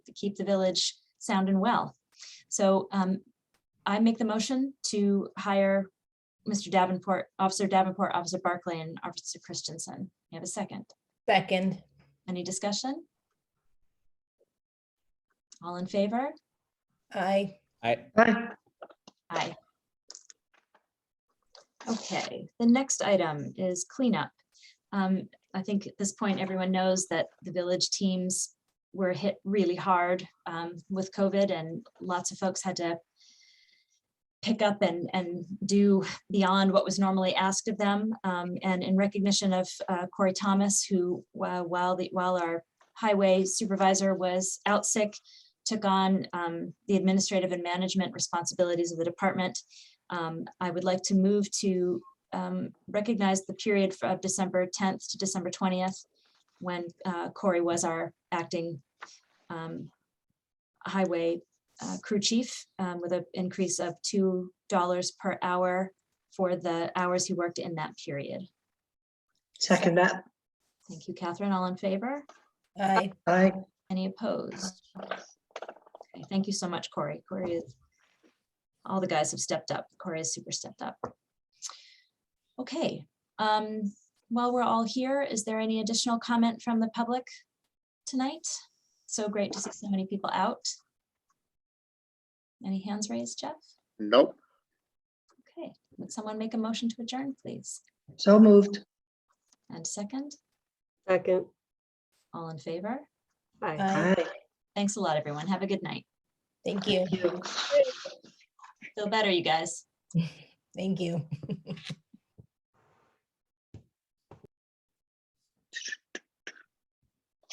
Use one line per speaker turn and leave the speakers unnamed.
to keep the village sound and well. So um, I make the motion to hire Mr. Davenport, Officer Davenport, Officer Barclay, and Officer Christensen. You have a second?
Second,
Any discussion? All in favor?
I,
I,
Aye. Okay, the next item is cleanup. Um, I think at this point, everyone knows that the village teams were hit really hard um, with COVID and lots of folks had to pick up and, and do beyond what was normally asked of them. Um, And in recognition of uh, Corey Thomas, who uh, while, the while our highway supervisor was out sick, took on um, the administrative and management responsibilities of the department. Um, I would like to move to um, recognize the period of December 10th to December 20th, when uh, Corey was our acting um, highway uh, crew chief um, with an increase of $2 per hour for the hours he worked in that period.
Second that.
Thank you, Catherine. All in favor?
I,
Aye.
Any opposed? Okay, Thank you so much, Corey. Corey is, all the guys have stepped up. Corey is super stepped up. Okay, um, while we're all here, is there any additional comment from the public tonight? So great to see so many people out. Any hands raised, Jeff?
Nope.
Okay, would someone make a motion to adjourn, please?
So moved.
And second,
Second.
all in favor?
Aye.
I,
Thanks a lot, everyone. Have a good night.
thank you,
Feel better, you guys.
thank you.